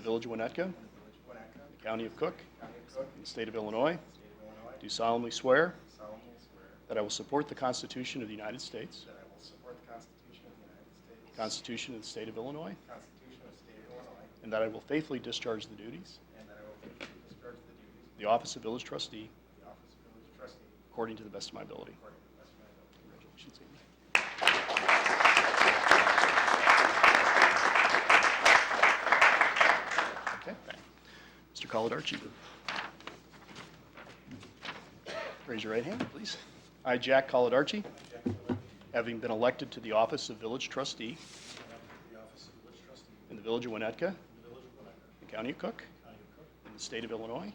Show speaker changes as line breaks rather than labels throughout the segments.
Village of Winnetka, the County of Cook, and the State of Illinois, do solemnly swear
solemnly swear
that I will support the Constitution of the United States,
that I will support the Constitution of the United States,
the Constitution of the State of Illinois,
the Constitution of the State of Illinois,
and that I will faithfully discharge the duties
and that I will faithfully discharge the duties
of the Office of Village Trustee
of the office of village trustee
according to the best of my ability.
according to the best of my ability.
Congratulations, Amy. Okay. Mr. Coladarchi. Raise your right hand, please. I, Jack Coladarchi, having been elected to the office of village trustee in the village of Winnetka, the county of Cook, in the state of Illinois,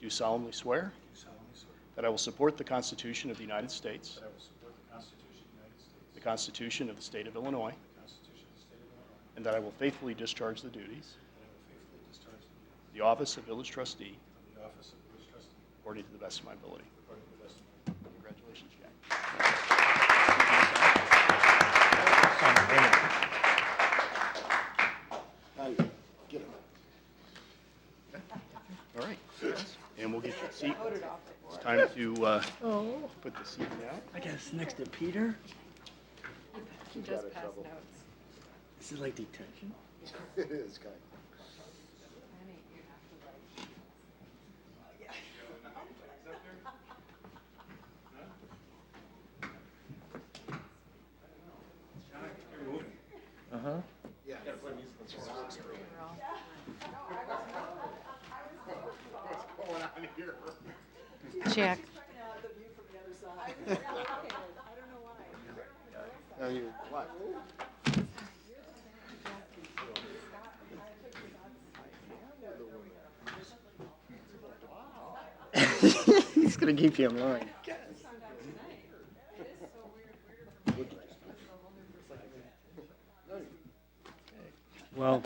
do solemnly swear
Do solemnly swear
that I will support the Constitution of the United States,
that I will support the Constitution of the United States,
the Constitution of the state of Illinois,
the Constitution of the State of Illinois,
And that I will faithfully discharge the duties
that I will faithfully discharge the duties
of the office of village trustee
of the office of village trustee
according to the best of my ability.
according to the best of my ability.
Congratulations, Jack. All right. And we'll get your seat. It's time to uh, put the seat down.
I guess next to Peter,
He does pass notes.
this is like detention. Uh huh.
Jack,
He's gonna keep you in line.
Well,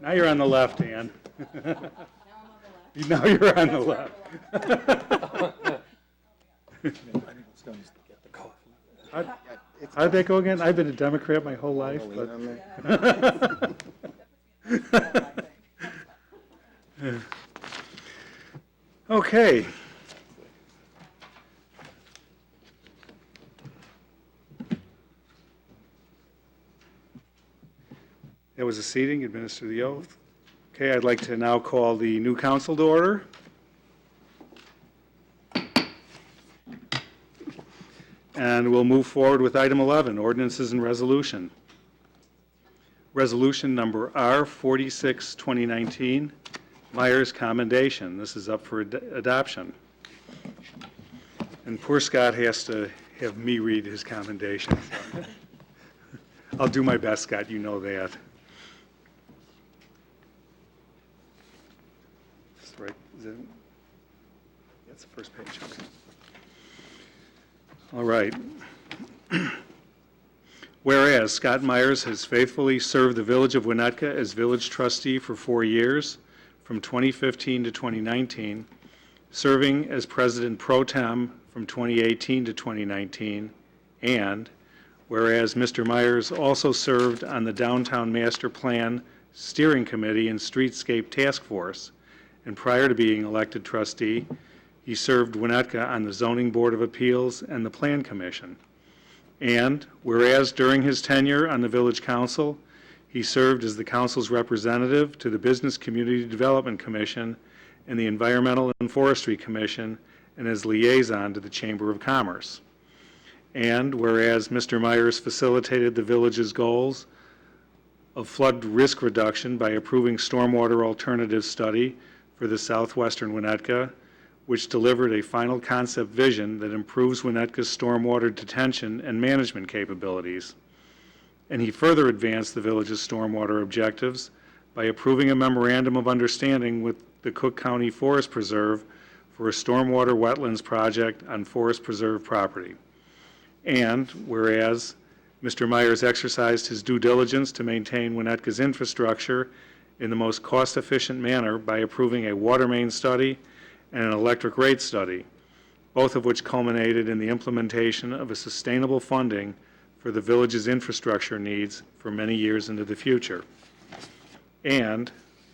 now you're on the left, hand. Now you're on the left. How'd- How'd that go again? I've been a Democrat my whole life, but. Okay. That was a seating, administer the oath. Okay, I'd like to now call the new council to order. And we'll move forward with item 11, ordinances and resolution. Resolution number R 46, 2019, Myers Commendation. This is up for ad- adoption. And poor Scott has to have me read his commendation. so. I'll do my best, Scott, you know that. Is it right, is it, that's the first page, okay. All right. Whereas Scott Myers has faithfully served the Village of Winnetka as village trustee for four years, from 2015 to 2019, serving as president pro tem from 2018 to 2019, and whereas Mr. Myers also served on the Downtown Master Plan Steering Committee and Streetscape Task Force, and prior to being elected trustee, he served Winnetka on the Zoning Board of Appeals and the Plan Commission. And whereas during his tenure on the Village Council, he served as the council's representative to the Business Community Development Commission and the Environmental and Forestry Commission, and as liaison to the Chamber of Commerce. And whereas Mr. Myers facilitated the village's goals of flood risk reduction by approving stormwater alternative study for the southwestern Winnetka, which delivered a final concept vision that improves Winnetka's stormwater detention and management capabilities. And he further advanced the village's stormwater objectives by approving a memorandum of understanding with the Cook County Forest Preserve for a stormwater wetlands project on Forest Preserve property. And whereas Mr. Myers exercised his due diligence to maintain Winnetka's infrastructure in the most cost-efficient manner by approving a water main study and an electric rate study, both of which culminated in the implementation of a sustainable funding for the village's infrastructure needs for many years into the future. And